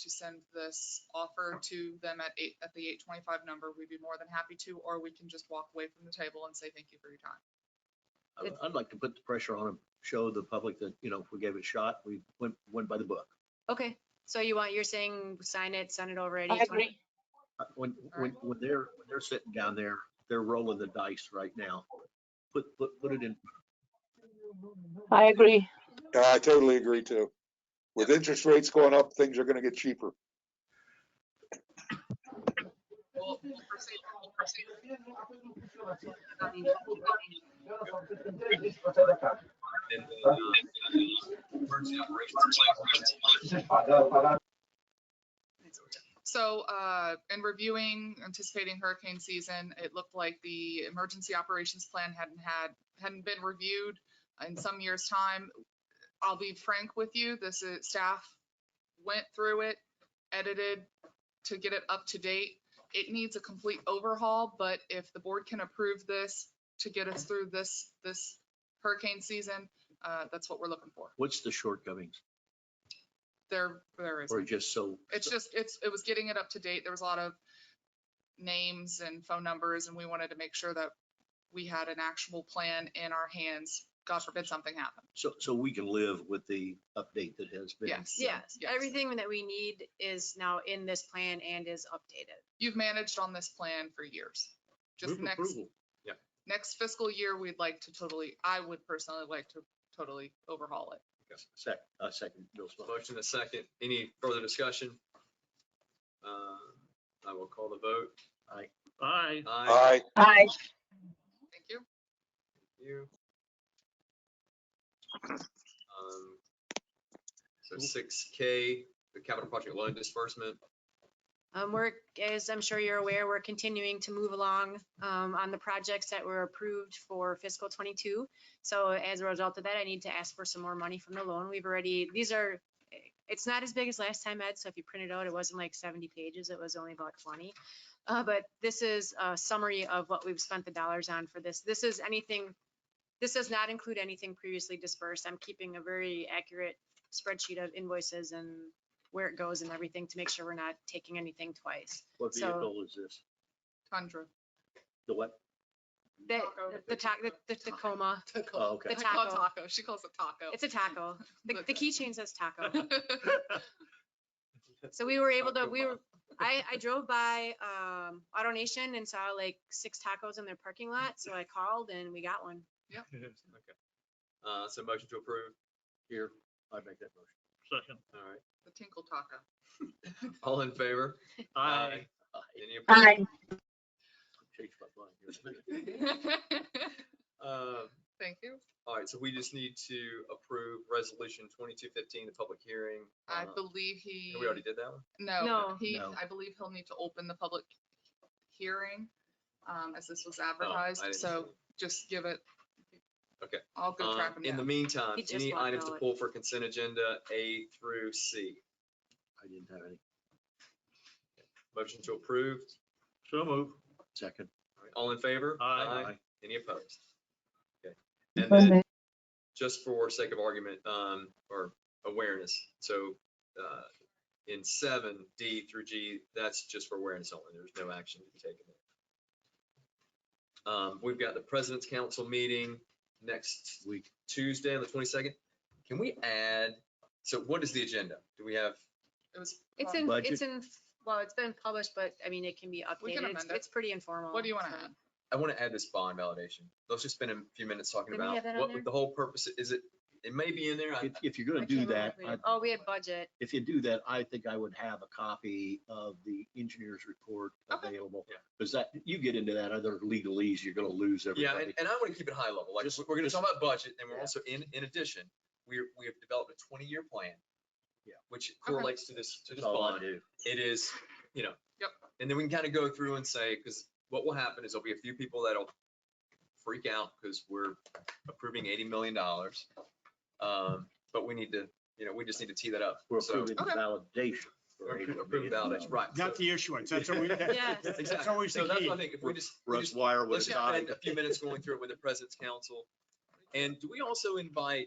to send this offer to them at eight, at the eight twenty-five number, we'd be more than happy to, or we can just walk away from the table and say thank you for your time. I would- It's- I'd like to put the pressure on them, show the public that, you know, if we gave it a shot, we went, went by the book. Okay, so you want, you're saying sign it, send it over at I eight agree. twenty? Uh, When, when, when they're, when they're sitting down there, they're rolling the dice right now. Put, put, put it in, I agree. Yeah, I totally agree too. With interest rates going up, things are gonna get cheaper. We'll- we'll proceed- we'll proceed. So, uh, in reviewing, anticipating hurricane season, it looked like the emergency operations plan hadn't had, hadn't been reviewed in some years' time. I'll be frank with you, this is, staff went through it, edited to get it up to date. It needs a complete overhaul, but if the board can approve this to get us through this, this hurricane season, uh, that's what we're looking for. what's the shortcomings? There, there is. Or just so, It's just, it's, it was getting it up to date. There was a lot of names and phone numbers and we wanted to make sure that we had an actual plan in our hands. God forbid something happened. so, so we can live with the update that has been. Yes. Yes, Yes. everything that we need is now in this plan and is updated. You've managed on this plan for years. Just Move next, approval. next fiscal year, we'd like to totally, I would personally like to totally overhaul it. Sec, uh, second, Bill's motion. Motion a second. Any further discussion? Uh, I will call the vote. Aye. Aye. Aye. Aye, Aye. Thank you. You. Um, So six K, the capital project loan disbursement. Um, we're, as I'm sure you're aware, we're continuing to move along, um, on the projects that were approved for fiscal twenty-two. So as a result of that, I need to ask for some more money from the loan. We've already, these are, it's not as big as last time, Ed, so if you print it out, it wasn't like seventy pages, it was only about twenty. Uh, but this is a summary of what we've spent the dollars on for this. This is anything, this does not include anything previously dispersed. I'm keeping a very accurate spreadsheet of invoices and where it goes and everything to make sure we're not taking anything twice. What So- vehicle is this? Tundra. The what? The, Taco. the ta, the- the Tacoma, Oh, okay. I The call it taco. Taco. She calls it taco. it's a taco. The, the keychain says taco. It's. So we were able to, Taco we were, I, I drove by, um, AutoNation and saw like six tacos in their parking lot. So I called and we got one. Okay. Uh, so motion to approve. Here, I'd make that motion. Second. All right. The tinkle taco. All in favor? Aye. Aye. Any opposed? Aye. Change my mind. here in a minute. Um, Thank you. All right, so we just need to approve resolution twenty-two fifteen, the public hearing. I uh, believe he. and We already did that one? No, No. he, No. I believe he'll need to open the public hearing, um, as this was Oh, I advertised, didn't see so it. just give it. Okay. I'll go track Um, him In the down. meantime, He just any walked items to out. pull for consent agenda A through C? I didn't have any. Motion to approve. So move. Second. All right, All in favor? Aye. Any opposed? Okay. And then just for sake of argument, um, or awareness, so, uh, in seven, D through G, that's just for awareness only, there's no action to be taken. there. Um, we've got the President's Council meeting next Week. Tuesday on the twenty-second. Can we add, so what is the agenda? Do we have, It was, It's um, in, Budget. it's in, well, it's been published, but I mean, it can be We can updated. It's, amend it. it's pretty informal. What do you wanna so. add? I want to add this bond validation. Let's just spend a few minutes talking Didn't we about have that on there? what the whole purpose, is it, it may be in there, I- If, if you're I gonna do can't that, remember if we I did- Oh, we had budget. if you do that, I think I would have a copy of the engineer's report Okay. available. Yeah. Because that, you get into that other legalese, you're gonna lose Yeah, and, everybody. and I want to keep it high level. Like, Just- we're going to just- talk about budget and we're Yeah. also in, in addition, we're, we have developed a twenty-year plan. Yeah. Which correlates to this, to this That's all I bond. do. It is, you know. Yep. And then we can kind of go through and say, because what will happen is there'll be a few people that'll freak out because we're approving eighty million dollars. Um, but we need to, you know, we just need to tee that up. We're So approving the Okay. validation. for $80 approve million. validation, right. Not so- the issuance. That's always, Yes. that's Exactly. always So the that's key. what I think. If we just, we Russ just Wire Let's was just spend died. a few minutes going through it with the president's council. And do we also invite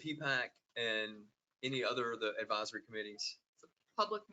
P-PAC and any other of the advisory committees? Public